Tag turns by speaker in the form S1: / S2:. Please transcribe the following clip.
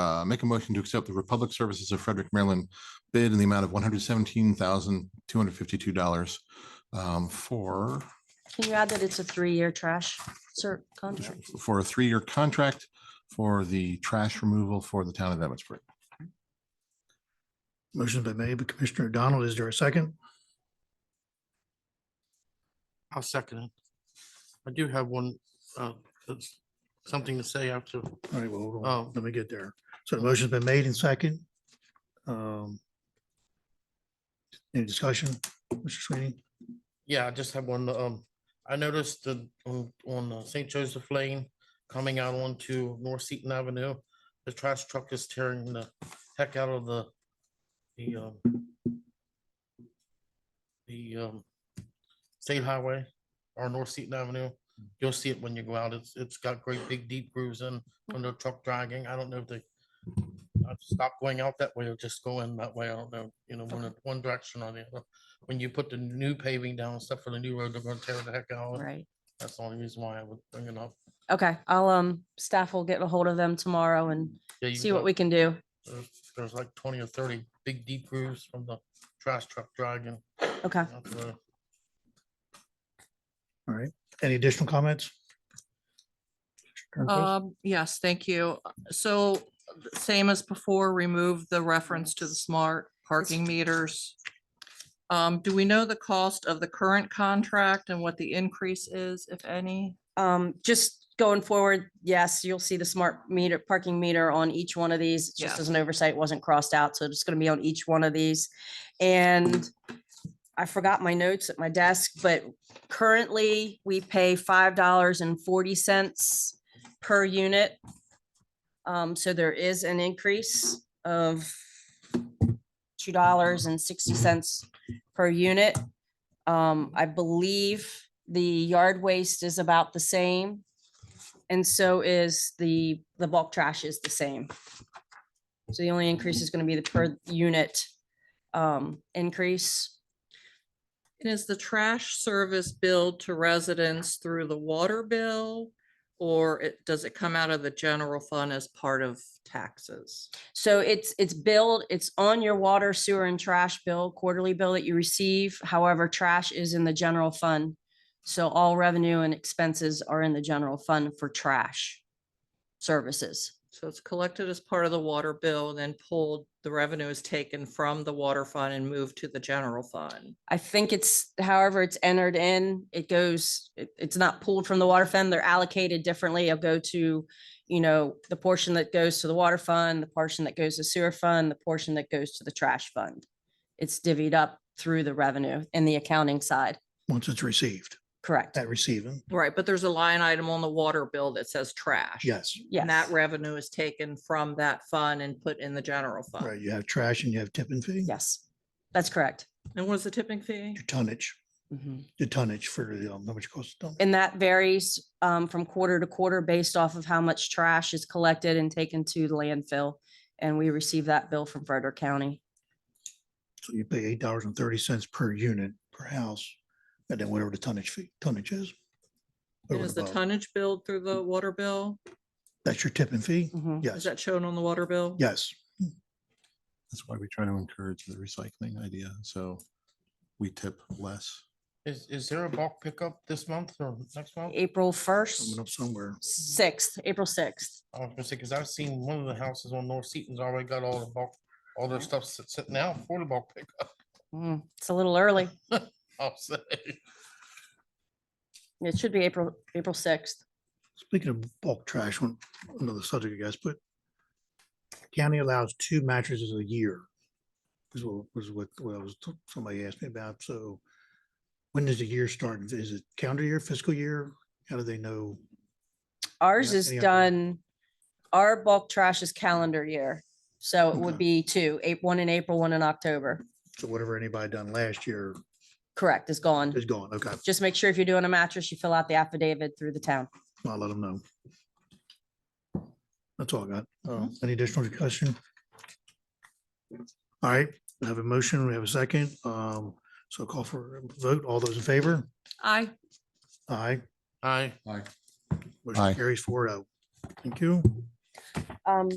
S1: Uh, make a motion to accept the Republic Services of Frederick, Maryland bid in the amount of one hundred seventeen thousand, two hundred fifty-two dollars um, for,
S2: Can you add that it's a three-year trash cert contract?
S1: for a three-year contract for the trash removal for the town of Emmitsburg.
S3: Motion's been made by Commissioner O'Donnell. Is there a second?
S4: I'll second it. I do have one, uh, that's something to say after.
S3: All right, well, hold
S4: Oh.
S3: on. Let me get there. So the motion's been made and second. Um, Any discussion, Mr. Sweeney?
S4: Yeah, I just have one, um, I noticed that on, on uh, St. Joseph Lane, coming out onto North Seaton Avenue, the trash truck is tearing the heck out of the, the, um, the, um, state highway or North Seaton Avenue. You'll see it when you go out. It's, it's got great big deep grooves in, from the truck dragging. I don't know if they I'd stop going out that way or just go in that way. I don't know, you know, one, in one direction or the other. When you put the new paving down, and stuff for the new road, they're gonna tear the heck out. of it.
S2: Right.
S4: That's the only reason why I would bring it up.
S2: Okay, I'll, um, staff will get a hold of them tomorrow and
S4: Yeah, you
S2: see what
S4: got-
S2: we can do.
S4: there's- There's like twenty or thirty big deep grooves from the trash truck dragging.
S2: Okay.
S4: out the road.
S3: Any additional comments? Turnquist?
S5: Um, yes, thank you. So same as before, remove the reference to the smart parking meters. Um, do we know the cost of the current contract and what the increase is, if any?
S2: Um, just going forward, yes, you'll see the smart meter, parking meter on each one of these. It's Just
S5: Yes.
S2: as an oversight, it wasn't crossed out, so it's gonna be on each one of these. And I forgot my notes at my desk, but currently we pay five dollars and forty cents per unit. Um, so there is an increase of two dollars and sixty cents per unit. Um, I believe the yard waste is about the same. And so is the, the bulk trash is the same. So the only increase is gonna be the per unit um, increase.
S5: And is the trash service billed to residents through the water bill? Or it, does it come out of the general fund as part of taxes?
S2: So it's, it's billed, it's on your water, sewer and trash bill, quarterly bill that you receive. However, trash is in the general fund. So all revenue and expenses are in the general fund for trash services.
S5: So it's collected as part of the water bill, then pulled, the revenue is taken from the water fund and moved to the general fund.
S2: I think it's however it's entered in, it goes, it- it's not pulled from the water fund. They're allocated differently. It'll go to, you know, the portion that goes to the water fund, the portion that goes to sewer fund, the portion that goes to the trash fund. It's divvied up through the revenue and the accounting side.
S3: Once it's received,
S2: Correct.
S3: at receiving,
S5: Right, but there's a line item on the water bill that says trash.
S3: yes.
S2: Yes.
S5: And that revenue is taken from that fund and put in the general
S3: Right,
S5: fund.
S3: you have trash and you have tipping fee,
S2: Yes, that's correct.
S5: And what's the tipping fee?
S3: your tonnage,
S2: Mhm.
S5: Mm-hmm.
S3: the tonnage for the, um, how much it costs. to dump.
S2: And that varies um, from quarter to quarter based off of how much trash is collected and taken to the landfill. And we receive that bill from Frederick County.
S3: So you pay eight dollars and thirty cents per unit per house, and then whatever the tonnage fee, tonnage is.
S5: And
S3: over
S5: Is
S3: and
S5: the
S3: above.
S5: tonnage billed through the water bill?
S3: That's your tipping fee?
S2: Mhm.
S5: Is
S3: Yes,
S5: that shown on the water bill?
S3: yes.
S1: That's why we try to encourage the recycling idea. So we tip less.
S4: Is, is there a bulk pickup this month or next month?
S2: April first.
S3: Coming up somewhere.
S2: sixth, April sixth.
S4: I was gonna say, cause I've seen one of the houses on North Seaton's already got all the bulk, all their stuff sit- sitting out for the bulk pickup.
S2: Hmm, It's a little early.
S4: I'll say.
S2: It should be April, April sixth.
S3: Speaking of bulk trash, one, another subject, I guess, but county allows two mattresses a year. Is what, was what, what I was, t- somebody asked me about, so when does the year start? Is it calendar year, fiscal year? How do they know?
S2: Ours
S3: Yeah,
S2: is
S3: any other-
S2: done, our bulk trash is calendar year. So it would
S3: Okay.
S2: be two, eight, one in April, one in October.
S3: So whatever anybody done last year
S2: Correct, is gone.
S3: is gone, okay,
S2: Just make sure if you're doing a mattress, you fill out the affidavit through the town.
S3: I'll let them know. That's all I got. Uh, Any additional discussion? All right, we have a motion, we have a second, um, so call for a vote, all those in favor?
S5: I,
S3: Aye.
S4: Aye.
S3: Motion
S1: Aye.
S3: carries four oh. Thank you.
S2: Um,